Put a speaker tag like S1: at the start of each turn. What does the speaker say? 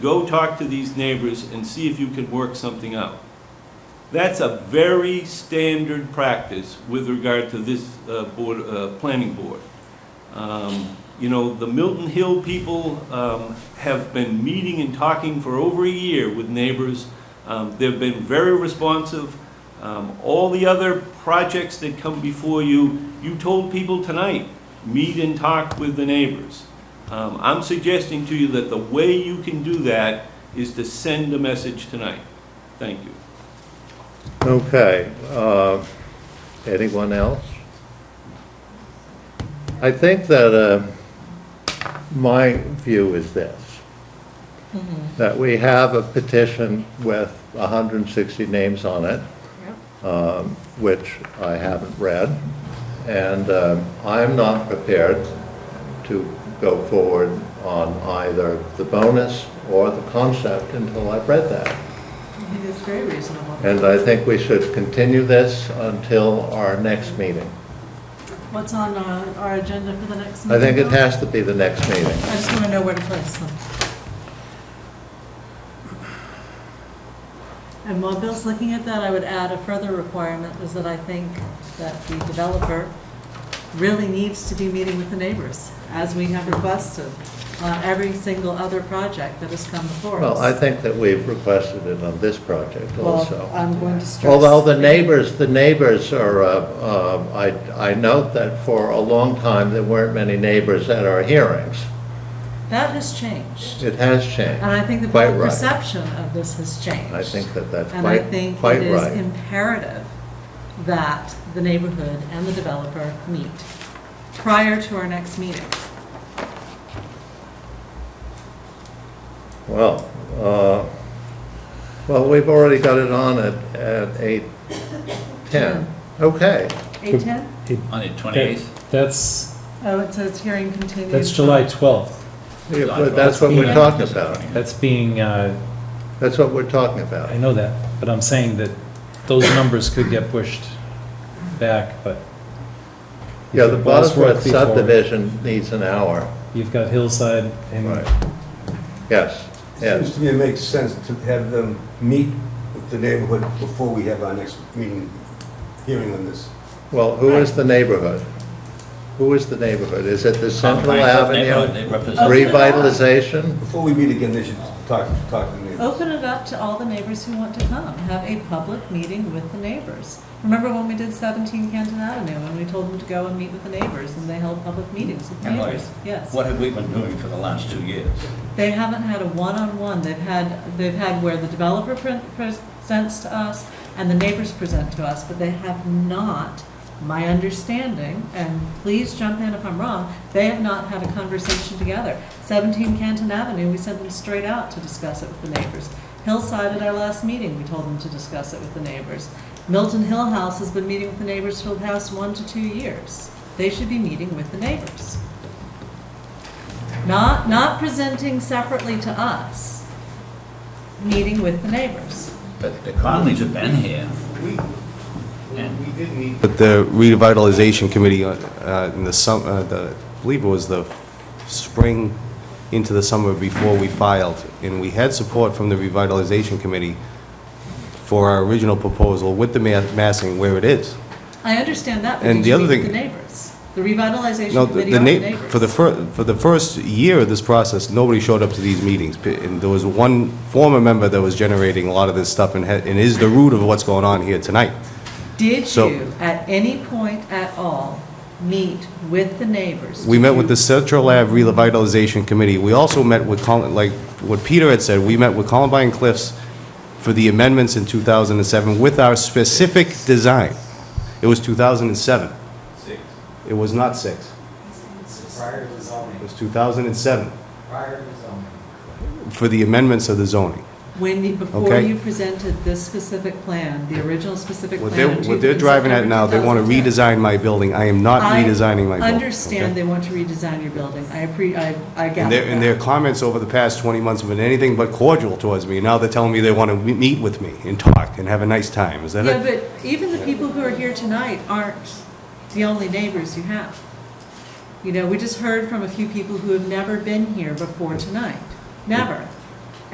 S1: Go talk to these neighbors and see if you can work something out. That's a very standard practice with regard to this uh, board, uh, planning board. Um, You know, the Milton Hill people um, have been meeting and talking for over a year with neighbors. Um, They've been very responsive. Um, All the other projects that come before you, you told people tonight, meet and talk with the neighbors. Um, I'm suggesting to you that the way you can do that is to send a message tonight. Thank you.
S2: Okay, uh, anyone else? I think that uh, my view is this, that we have a petition with 160 names on it, um, which I haven't read, and um, I'm not prepared to go forward on either the bonus or the concept until I've read that.
S3: I think it's very reasonable.
S2: And I think we should continue this until our next meeting.
S3: What's on uh, our agenda for the next
S2: I
S3: meeting?
S2: think it has to be the next meeting.
S3: I just want to know where to place them. And while Bill's looking at that, I would add a further requirement is that I think that the developer really needs to be meeting with the neighbors, as we have requested on every single other project that has come before us.
S2: Well, I think that we've requested it on this project
S3: Well,
S2: also.
S3: I'm going to stress.
S2: Although the neighbors, the neighbors are, uh, um, I I note that for a long time, there weren't many neighbors at our hearings.
S3: That has changed.
S2: It has
S3: And
S2: changed.
S3: I think the
S2: Quite
S3: public
S2: right.
S3: perception of this has changed.
S2: I think that that's
S3: And I
S2: quite,
S3: think
S2: quite
S3: it is
S2: right.
S3: imperative that the neighborhood and the developer meet prior to our next meeting.
S2: Well, uh, well, we've already got it on at at 8:10. Okay.
S3: 8:10?
S4: On the
S5: That-
S4: 28th?
S5: That's,
S3: Oh, it says hearing continued.
S5: that's July 12th.
S2: Yeah, but That's what we're talking about.
S5: That's being, uh,
S2: That's what we're talking
S5: I
S2: about.
S5: know that, but I'm saying that those numbers could get pushed back, but.
S2: Yeah, the
S5: You've got
S2: Bosworth
S5: Bosworth before.
S2: subdivision needs an hour.
S5: You've got Hillside and,
S2: Yes,
S6: Seems
S2: yes.
S6: to me it makes sense to have them meet with the neighborhood before we have our next meeting, hearing on this.
S2: Well, who is the neighborhood? Who is the neighborhood? Is it the Central
S4: Pine Grove neighborhood,
S2: Avenue
S4: They represent,
S2: revitalization?
S6: Before we meet again, they should talk, talk to the neighbors.
S3: Open it up to all the neighbors who want to come. Have a public meeting with the neighbors. Remember when we did 17 Canton Avenue and we told them to go and meet with the neighbors and they held public meetings with
S4: And like,
S3: neighbors? Yes.
S4: what have we been doing for the last two years?
S3: They haven't had a one-on-one, they've had, they've had where the developer pre- presents to us and the neighbors present to us, but they have not, my understanding, and please jump in if I'm wrong, they have not had a conversation together. Seventeen Canton Avenue, we sent them straight out to discuss it with the neighbors. Hillside at our last meeting, we told them to discuss it with the neighbors. Milton Hill House has been meeting with the neighbors for the past one to two years. They should be meeting with the neighbors. Not, not presenting separately to us, meeting with the neighbors.
S4: But the Conleys have been here.
S7: We,
S4: And-
S7: we did meet. But the revitalization committee uh, in the sum, uh, the, I believe it was the spring into the summer before we filed, and we had support from the revitalization committee for our original proposal with the ma- massing where it is.
S3: I understand that, but did
S7: And the
S3: you
S7: other
S3: meet with the
S7: thing-
S3: neighbors? The
S7: No,
S3: revitalization
S7: the,
S3: committee
S7: the
S3: are the
S7: na,
S3: neighbors.
S7: for the fir, for the first year of this process, nobody showed up to these meetings. P- And there was one former member that was generating a lot of this stuff and had, and is the root of what's going on here tonight.
S3: Did
S7: so-
S3: you, at any point at all, meet with the neighbors?
S7: We
S3: Did
S7: met
S3: you-
S7: with the Central Lab Revitalization Committee. We also met with, Col- like what Peter had said, we met with Columbine Cliffs for the amendments in 2007 with our specific design. It was 2007. Six. It was not six.
S8: Prior to zoning,
S7: It was 2007
S8: prior to zoning.
S7: for the amendments of the zoning.
S3: When, you- before
S7: Okay.
S3: you presented this specific plan, the original specific plan.
S7: What they're,
S3: in
S7: what they're driving at now, they want to
S3: 2010.
S7: redesign my building. I am not
S3: I
S7: redesigning my building.
S3: Understand
S7: okay?
S3: they want to redesign your building. I appre, I, I gather
S7: And their, and
S3: that.
S7: their comments over the past 20 months have been anything but cordial towards me. Now they're telling me they want to me- meet with me and talk and have a nice time. Is that
S3: Yeah,
S7: it?
S3: but even the people who are here tonight aren't the only neighbors you have. You know, we just heard from a few people who have never been here before tonight, never.